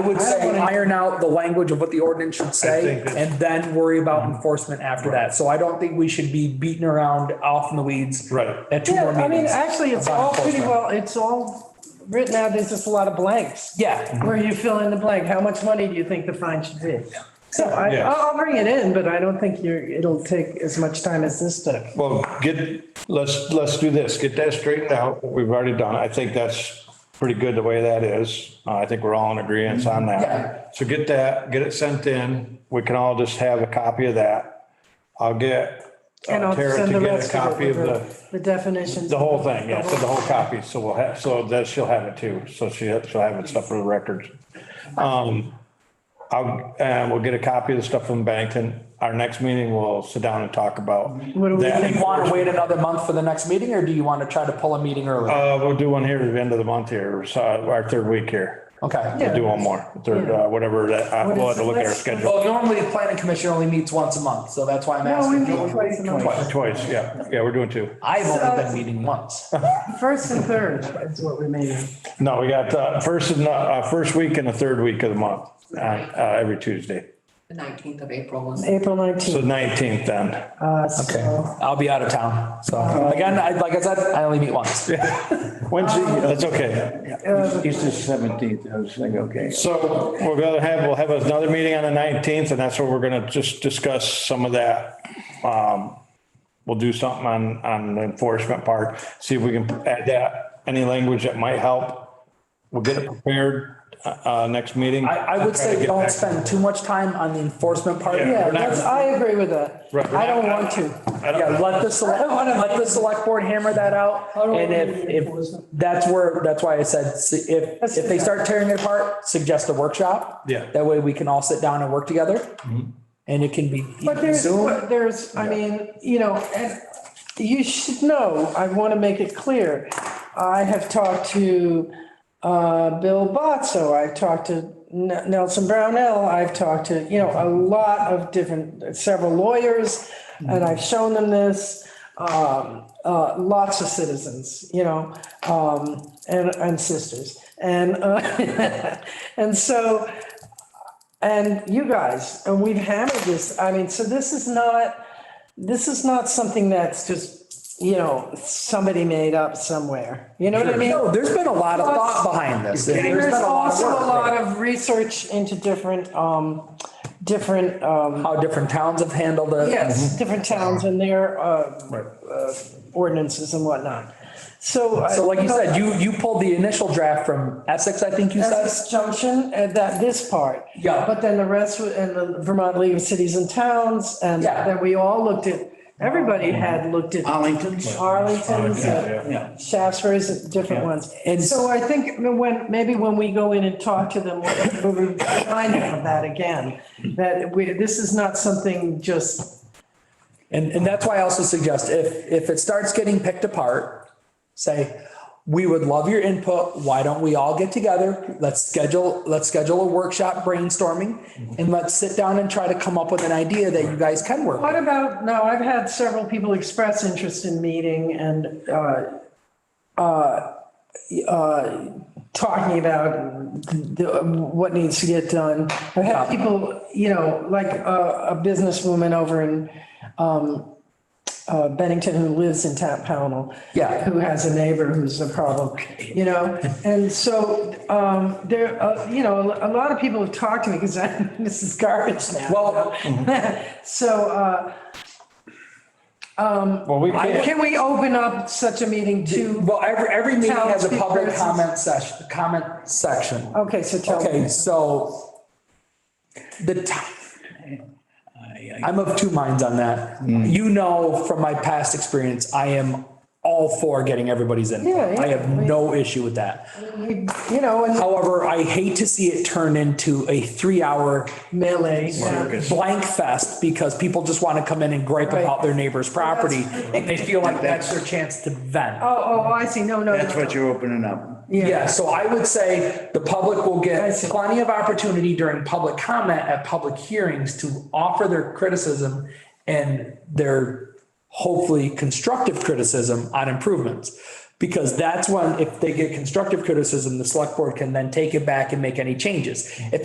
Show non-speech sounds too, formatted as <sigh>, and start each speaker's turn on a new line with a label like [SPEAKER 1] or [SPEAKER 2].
[SPEAKER 1] I would say iron out the language of what the ordinance should say
[SPEAKER 2] think that's-
[SPEAKER 1] and then worry about enforcement after that. So I don't think we should be beating around off in the weeds.
[SPEAKER 2] Right.
[SPEAKER 1] At two
[SPEAKER 3] Yeah,
[SPEAKER 1] more
[SPEAKER 3] I mean,
[SPEAKER 1] meetings.
[SPEAKER 3] actually, it's
[SPEAKER 1] about
[SPEAKER 3] all pretty
[SPEAKER 1] enforcement.
[SPEAKER 3] well, it's all written out, there's just a lot of blanks.
[SPEAKER 1] Yeah,
[SPEAKER 3] Where you fill in the blank, how much money do you think the fine should be? So I,
[SPEAKER 2] Yeah.
[SPEAKER 3] I'll I'll bring it in, but I don't think you're, it'll take as much time as this took.
[SPEAKER 2] Well, get, let's, let's do this, get that straightened out, we've already done, it. I think that's pretty good the way that is. Uh, I think we're all in agreement on
[SPEAKER 1] Yeah.
[SPEAKER 2] that. So get that, get it sent in, we can all just have a copy of that. I'll get
[SPEAKER 3] And
[SPEAKER 2] uh,
[SPEAKER 3] I'll
[SPEAKER 2] Tara
[SPEAKER 3] send
[SPEAKER 2] to
[SPEAKER 3] the
[SPEAKER 2] get a
[SPEAKER 3] rest of
[SPEAKER 2] copy
[SPEAKER 3] it,
[SPEAKER 2] of
[SPEAKER 3] the,
[SPEAKER 2] the,
[SPEAKER 3] the definitions.
[SPEAKER 2] the whole thing, yeah, so the whole copy, so we'll have, so that she'll have it too, so she, she'll have it stuff for the records. Um, I'll, and we'll get a copy of the stuff from Bennington, our next meeting, we'll sit down and talk about.
[SPEAKER 3] What do we
[SPEAKER 2] that.
[SPEAKER 1] do you want to wait another month for the next meeting or do you want to try to pull a meeting early?
[SPEAKER 2] Uh, we'll do one here at the end of the month here, so our third week here.
[SPEAKER 1] Okay.
[SPEAKER 2] We'll do one more, third, uh, whatever that, uh, we'll have to look at our schedule
[SPEAKER 1] Well, normally the planning commission only meets once a month, so that's why I'm
[SPEAKER 3] No, we
[SPEAKER 1] asking.
[SPEAKER 3] meet twice a month,
[SPEAKER 2] twice, yeah, yeah, we're doing two.
[SPEAKER 1] I've only been meeting once.
[SPEAKER 3] first and third is what we made. it.
[SPEAKER 2] No, we got, uh, first and, uh, first week and the third week of the month, uh, uh, every Tuesday.
[SPEAKER 4] The nineteenth of April was.
[SPEAKER 3] April
[SPEAKER 2] So
[SPEAKER 3] 19th.
[SPEAKER 2] nineteenth then.
[SPEAKER 3] uh, so-
[SPEAKER 1] I'll be out of town. So
[SPEAKER 3] Uh,
[SPEAKER 1] again, I, like I said, I only meet once.
[SPEAKER 2] Wednesday, that's okay.
[SPEAKER 5] It's the seventeenth, I was thinking, okay.
[SPEAKER 2] So we're gonna have, we'll have another meeting on the nineteenth and that's where we're gonna just discuss some of that. Um, we'll do something on, on the enforcement part, see if we can add that, any language that might help. We'll get it prepared, uh, uh, next meeting.
[SPEAKER 1] I, I would say don't spend too much time on the enforcement part.
[SPEAKER 2] Yeah.
[SPEAKER 3] Yeah,
[SPEAKER 2] We're not-
[SPEAKER 3] that's, I agree with that.
[SPEAKER 2] Right, we're
[SPEAKER 3] I don't
[SPEAKER 2] not-
[SPEAKER 3] want to.
[SPEAKER 2] I
[SPEAKER 1] Yeah,
[SPEAKER 2] don't-
[SPEAKER 1] let the select, let the select board hammer that out. And if, if, that's where, that's why I said, s- if, if they start tearing it apart, suggest a workshop.
[SPEAKER 2] Yeah. Mm-hmm.
[SPEAKER 1] That way we can all sit down and work together. And it can be.
[SPEAKER 3] But there's,
[SPEAKER 1] Zoom.
[SPEAKER 3] but there's, I mean, you know, and you should know, I want to make it clear. I have talked to uh, Bill Botso, I've talked to N- Nelson Brownell, I've talked to, you know, a lot of different, several lawyers, and I've shown them this, um, uh, lots of citizens, you know, um, and, and sisters. And, uh, <laughs> and so, and you guys, and we've hammered this, I mean, so this is not, this is not something that's just, you know, somebody made up somewhere, you know what I mean?
[SPEAKER 1] No, there's been a lot of thought behind this. and there's
[SPEAKER 3] There's
[SPEAKER 1] been a lot of
[SPEAKER 3] also a
[SPEAKER 1] work.
[SPEAKER 3] lot of research into different, um, different, um,
[SPEAKER 1] How different towns have handled it.
[SPEAKER 3] yes, different towns and their, uh,
[SPEAKER 2] Right.
[SPEAKER 3] ordinances and whatnot. So. uh,
[SPEAKER 1] So like you said, you, you pulled the initial draft from Essex, I think you said.
[SPEAKER 3] Essex Junction, and uh, that, this part.
[SPEAKER 1] Yeah.
[SPEAKER 3] But then the rest, wa- and the Vermont League of Cities and Towns, and
[SPEAKER 1] Yeah.
[SPEAKER 3] then we all looked at, everybody had looked at.
[SPEAKER 5] Arlington's.
[SPEAKER 3] Arlington's, uh,
[SPEAKER 5] Yeah.
[SPEAKER 3] Shaftesbury's, different ones.
[SPEAKER 1] And-
[SPEAKER 3] So I think when, maybe when we go in and talk to them, we'll we'll remind them of that again, that we, this is not something just,
[SPEAKER 1] And, and that's why I also suggest if, if it starts getting picked apart, say, we would love your input. Why don't we all get together? Let's schedule, let's schedule a workshop brainstorming and let's sit down and try to come up with an idea that you guys can work.
[SPEAKER 3] what
[SPEAKER 1] with.
[SPEAKER 3] about, no, I've had several people express interest in meeting and, uh, uh, uh, talking about the, what needs to get done. I've had people, you know, like a, a businesswoman over in, um, uh, Bennington who lives in Tap Pownell.
[SPEAKER 1] Yeah.
[SPEAKER 3] Who has a neighbor who's a problem, you know? And so, um, there, uh, you know, a lot of people have talked to me because I'm, <laughs> this is garbage now.
[SPEAKER 1] Well-
[SPEAKER 3] So, uh,
[SPEAKER 2] Well, we can't,
[SPEAKER 3] can we open up such a meeting to,
[SPEAKER 1] Well, every, every meeting has a
[SPEAKER 3] Townspeople
[SPEAKER 1] public
[SPEAKER 3] versus-
[SPEAKER 1] comment session, comment section.
[SPEAKER 3] okay, so tell me.
[SPEAKER 1] Okay, so the time. I'm of two minds on that.
[SPEAKER 3] Mm.
[SPEAKER 1] You know, from my past experience, I am all for getting everybody's
[SPEAKER 3] Yeah,
[SPEAKER 1] input.
[SPEAKER 3] yeah.
[SPEAKER 1] I have no issue with that.
[SPEAKER 3] You you know, and
[SPEAKER 1] However, I hate to see it turn into a three-hour
[SPEAKER 3] melee.
[SPEAKER 1] blank fest because people just want to come in and gripe
[SPEAKER 3] Right.
[SPEAKER 1] about their neighbor's property and they feel like that's their chance to vent.
[SPEAKER 3] Oh, oh, I see, no, no. no.
[SPEAKER 5] That's what you're opening up.
[SPEAKER 1] Yeah, so I would say the public will
[SPEAKER 3] I
[SPEAKER 1] get
[SPEAKER 3] see.
[SPEAKER 1] plenty of opportunity during public comment at public hearings to offer their criticism and their hopefully constructive criticism on improvements. Because
[SPEAKER 3] Mm-hmm.
[SPEAKER 1] that's when, if they get constructive criticism, the select board can then take it back and make any changes. If